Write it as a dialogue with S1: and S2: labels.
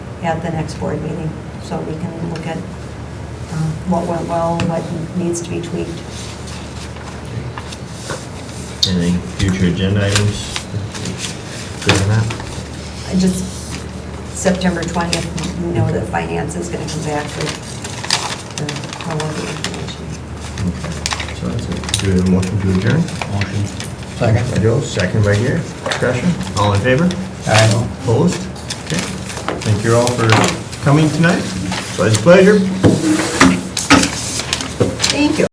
S1: at the next board meeting, so we can look at um, what went well, what needs to be tweaked.
S2: Any future agenda items? Good on that?
S1: I Just September 20th, we know that finance is going to come back with the- all of the information.
S2: Okay. So that's it. Do we have a motion to adjourn?
S3: Motion. Second.
S2: By Joe, second by Gary. Discussion? All in favor?
S3: Aye.
S2: Opposed? Okay. Thank you all for coming tonight. It's always a pleasure.
S1: Thank you.